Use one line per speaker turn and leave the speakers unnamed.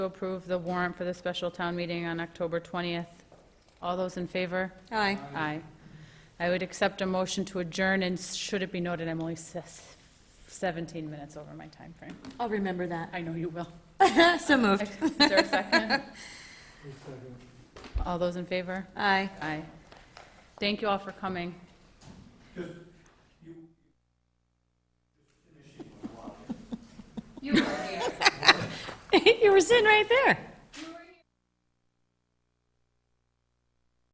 to approve the warrant for the special town meeting on October 20th. All those in favor?
Aye.
Aye. I would accept a motion to adjourn, and should it be noted, I'm only s- 17 minutes over my time frame.
I'll remember that.
I know you will.
So moved.
Is there a second? All those in favor?
Aye.
Aye. Thank you all for coming.
You were sitting right there.